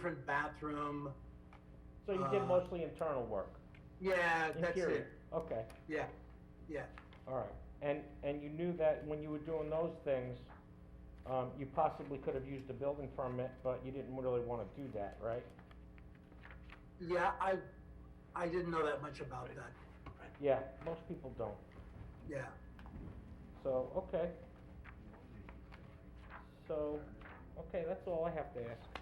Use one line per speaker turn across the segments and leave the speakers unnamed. different bathroom.
So you did
Uh,
mostly internal work?
Yeah, that's it.
interior. Okay,
Yeah, yeah.
all right. And, and you knew that when you were doing those things, um, you possibly could have used a building permit, but you didn't really wanna do that, right?
Yeah, I, I didn't know that much about that.
Yeah, most people don't.
Yeah.
So, okay. So, okay, that's all I have to ask.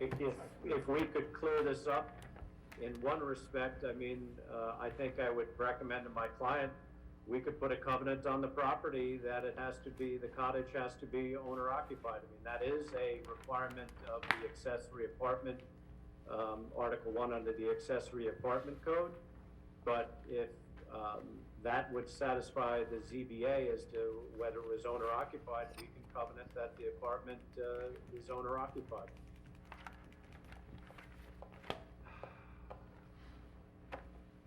If, if we could clear this up in one respect, I mean, uh, I think I would recommend to my client, we could put a covenant on the property that it has to be, the cottage has to be owner occupied. I mean, that is a requirement of the accessory apartment, um, Article one under the accessory apartment code. But if, um, that would satisfy the ZBA as to whether it was owner occupied, we can covenant that the apartment, uh, is owner occupied.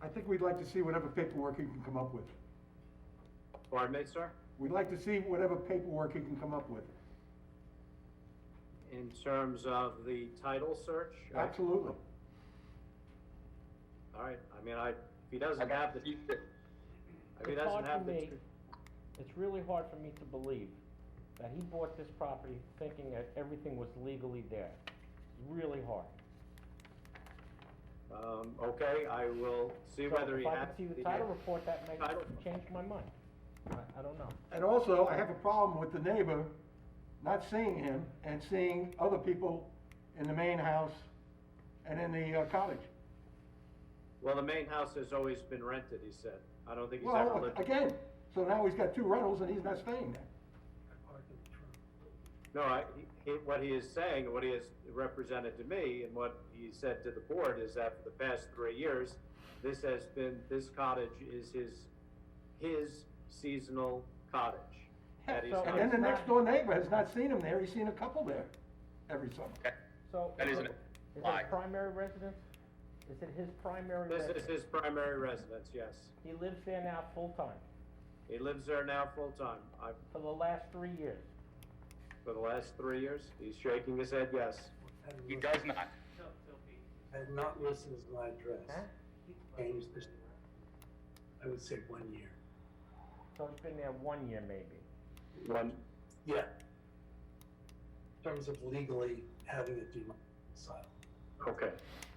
I think we'd like to see whatever paperwork you can come up with.
Pardon me, sir?
We'd like to see whatever paperwork you can come up with.
In terms of the title search?
Absolutely.
All right, I mean, I, if he doesn't have the, if he
It's hard
doesn't
for
have the,
me. It's really hard for me to believe that he bought this property thinking that everything was legally there. It's really hard.
um, okay, I will see
So
whether he has.
If I could see the title report, that may
Title.
change my mind. I, I don't know.
And also, I have a problem with the neighbor not seeing him and seeing other people in the main house and in the uh, cottage.
Well, the main house has always been rented, he said. I don't think he's ever
Well,
lived.
again, so now he's got two rentals and he's not staying there.
No, I, he, what he is saying, what he has represented to me and what he said to the board is that for the past three years, this has been, this cottage is his, his seasonal cottage. that he's
So-
not-
And then the next door neighbor has not seen him there, he's seen a couple there every summer.
So.
That
is
isn't
it-
a
Is
lie.
it primary residence? Is it his primary
This
residence?
is his primary residence, yes.
He lives there now full-time
He lives there now full-time. I,
for the last three years.
for the last three yeyears, he's shaking his head yes.
He does not.
Had not listed as my address.
Huh?
Changed this, I would say one year.
So he's been there one year maybe.
One,
Yeah. In terms of legally having it domiciled.
okay.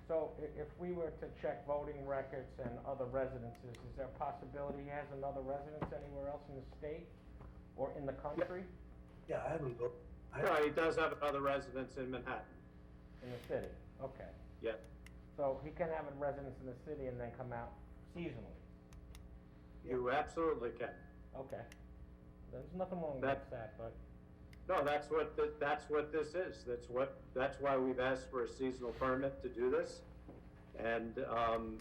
So i- if we were to check voting records and other residences, is there a possibility he has another residence anywhere else in the state or in the country,
Yeah, I haven't voted.
No, he does have another residence in Manhattan,
in the city? Okay.
yeah.
So he can have a residence in the city and then come out seasonally?
You absolutely can.
Okay. There's nothing wrong
That-
with that, but,
No, that's what, th- that's what this is. That's what, that's why we've asked for a seasonal permit to do this. And, um,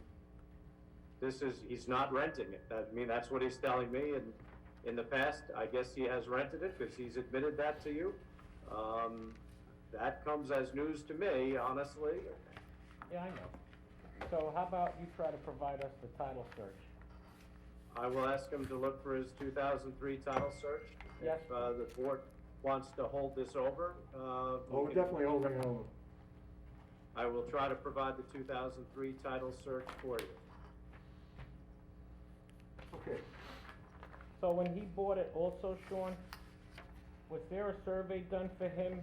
this is, he's not renting it. That- I mean, that's what he's telling me, and in the past, I guess he has rented it, because he's admitted that to you. Um, that comes as news to me, honestly.
yeah, I know. So how about you try to provide us the title search?
I will ask him to look for his two thousand three title search.
Yes.
If, uh, the board wants to hold this over, uh. we
Well, we're
can-
Oh, definitely holding it over.
I will try to provide the two thousand three title search for you.
Okay.
So when he bought it also, Sean, was there a survey done for him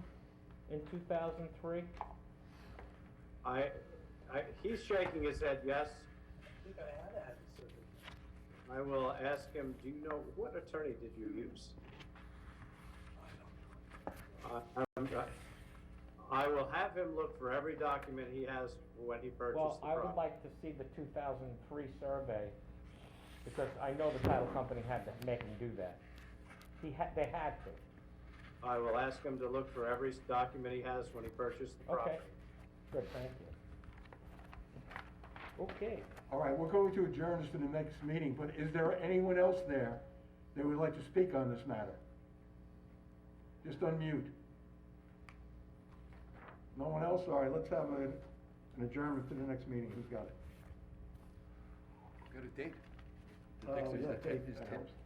in two thousand three?
I, I, he's shaking his head yes.
I think I had to have a survey.
I will ask him, do you know, what attorney did you use? I, I'm, uh, I will have him look for every document he has when he
Well,
purchased the
I would
property.
like to see the two thousand three survey, because I know the title company had to make him do that. He had, they had to.
I will ask him to look for every document he has when he purchased the
Okay.
property.
Good, thank you. Okay.
All right, we're going to adjourn this to the next meeting, but is there anyone else there that would like to speak on this matter? Just unmute. No one else? All right, let's have a- an adjournment to the next meeting. Who's got it?
Go to date.
Oh, yeah, Dave, that helps.